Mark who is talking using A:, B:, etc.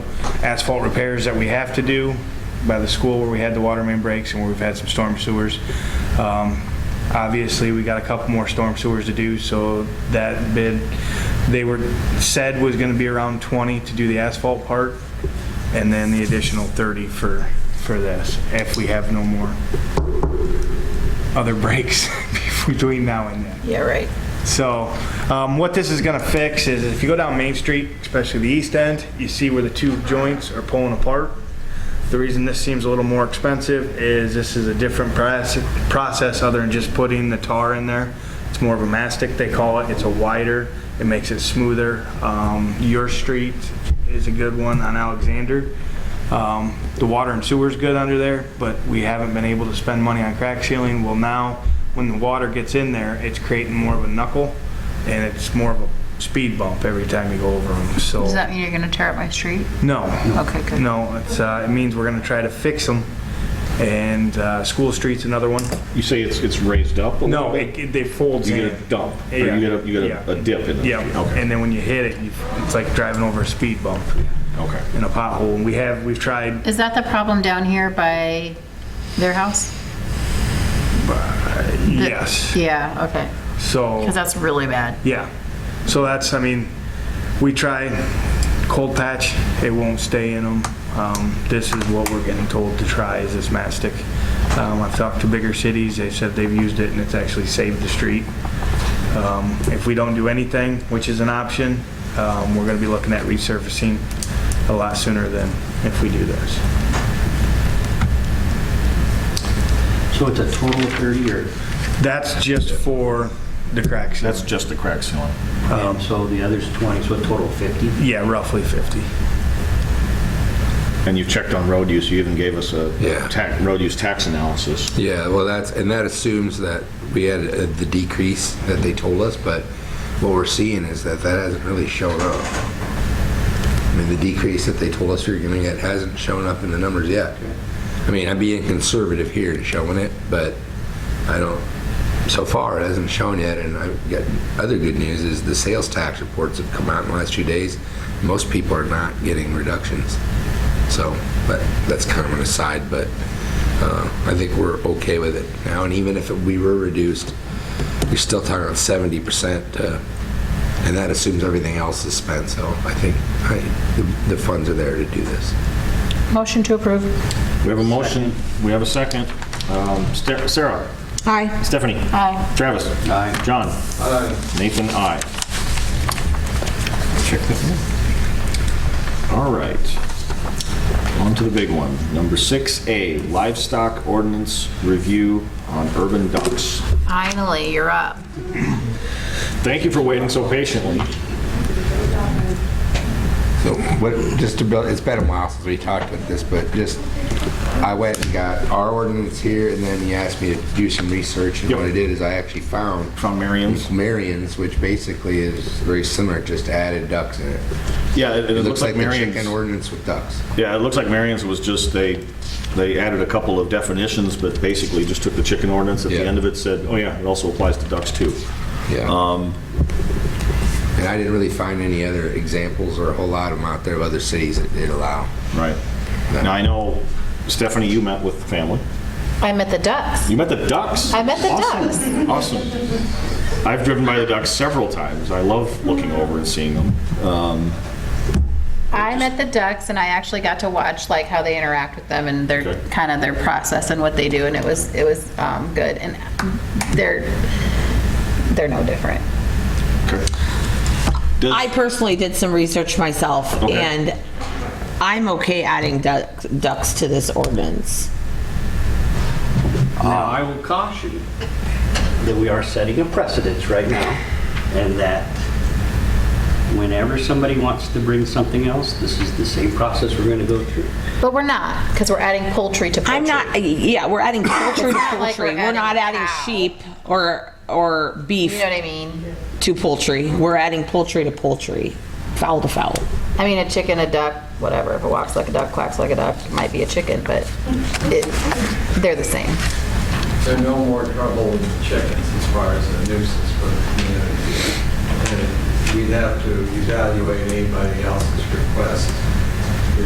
A: asphalt repairs that we have to do by the school where we had the water main breaks and where we've had some storm sewers. Um, Obviously, we got a couple more storm sewers to do, so that bid, they were, said was going to be around 20 to do the asphalt part, and then the additional 30 for, for this, if we have no more other breaks between now and then.
B: Yeah, right.
A: So, um, what this is gonna fix is if you go down Main Street, especially the east end, you see where the two joints are pulling apart. The reason this seems a little more expensive is this is a different proce- process other than just putting the tar in there. It's more of a mastic, they call it. It's a wider, it makes it smoother. Um, Your street is a good one on Alexander. Um, The water and sewer's good under there, but we haven't been able to spend money on crack sealing. Well, now, when the water gets in there, it's creating more of a knuckle, and it's more of a speed bump every time you go over them, so.
C: Does that mean you're gonna tear up my street?
A: No.
C: Okay, good.
A: No, it's, uh, it means we're gonna try to fix them, and, uh, School Street's another one.
D: You say it's, it's raised up? a little
A: No,
D: bit?
A: it, it- they folds
D: You
A: in.
D: get a dump, or you
A: Yeah.
D: get a, you get
A: Yeah.
D: a- a dip in it?
A: Yeah,
D: Okay,
A: and then when you hit it, you- it's like driving over a speed bump
D: okay.
A: in a pothole, and we have, we've tried
C: Is that the problem down here by their house? The-
A: Yes.
C: Yeah, okay.
A: So,
C: Because that's really bad.
A: yeah. So that's, I mean, we tried cold patch, it won't stay in them. Um, this is what we're getting told to try is this mastic. Um, I've talked to bigger cities, they said they've used it and it's actually saved the street. Um, if we don't do anything, which is an option, um, we're gonna be looking at resurfacing a lot sooner than if we do this.
E: So it's a total of 30 or,
A: That's just for the cracks.
D: That's just the crack ceiling.
E: and Um, so the other's 20, so a total of 50?
A: Yeah, roughly 50.
D: And you checked on road use, you even gave us a
F: Yeah.
D: tax, road use tax analysis.
F: Yeah, well, that's, and that assumes that we had uh, the decrease that they told us, but what we're seeing is that that hasn't really shown up. I mean, the decrease that they told us we were gonna get hasn't shown up in the numbers yet. I mean, I'm being conservative here and showing it, but I don't, so far, it hasn't shown yet, and I've got, other good news is the sales tax reports have come out in the last few days. Most people are not getting reductions. So, but that's kind of an aside, but uh, I think we're okay with it now. And even if we were reduced, you're still talking about 70%, uh, and that assumes everything else is spent. So I think I- the- the funds are there to do this.
C: Motion to approve.
D: We have a motion, we have a second. Um, Ste- Sarah? Aye. Stephanie?
C: Aye.
D: Travis? Aye. John? Aye. Nathan, aye. Check that in. All right. On to the big one. Number 6A, livestock ordinance review on urban ducks.
C: Finally, you're up.
D: Thank you for waiting so patiently.
F: So what, just to build, it's been a while since we talked about this, but just, I went and got our ordinance here, and then he asked me to do some research, and what I
D: Yep.
F: did is I actually found
D: From Marion's?
F: Marion's, which basically is very similar, just added ducks in it.
D: Yeah, it-
F: It
D: it
F: looks like the
D: Marion's-
F: chicken ordinance with ducks.
D: Yeah, it looks like Marion's was just, they, they added a couple of definitions, but basically just took the chicken ordinance at the
F: Yeah.
D: end of it, said, oh yeah, it also applies to ducks too.
F: Yeah. And I didn't really find any other examples or a whole lot of them out there of other cities that did allow.
D: Right. Now, I know, Stephanie, you met with the family.
G: I met the ducks.
D: You met the ducks?
G: I met the
D: Awesome. Awesome. I've driven by the ducks several times. I love looking over and seeing them. Um,
G: I met the ducks and I actually got to watch like how they interact with them and their,
D: Okay.
G: kind of their process and what they do and it was, it was um, good. And they're, they're no different.
D: does-
H: I personally did some research myself,
D: Okay.
H: and I'm okay adding duck- ducks to this ordinance.
E: Now, I will caution that we are setting a precedence right now, and that whenever somebody wants to bring something else, this is the same process we're going to go through.
G: But we're not, because we're adding poultry to poultry.
H: I'm not, yeah, we're adding poultry to
G: not like
H: poultry.
G: we're
H: We're not
G: adding
H: adding
G: cow.
H: sheep or, or
G: You
H: beef
G: know what I mean?
H: to poultry. We're adding poultry to poultry, fowl to fowl.
G: I mean, a chicken, a duck, whatever. If it walks like a duck, quacks like a duck, it might be a chicken, but it, they're the same.
I: There are no more trouble with chickens as far as a nuisance for the community. And We'd have to evaluate anybody else's request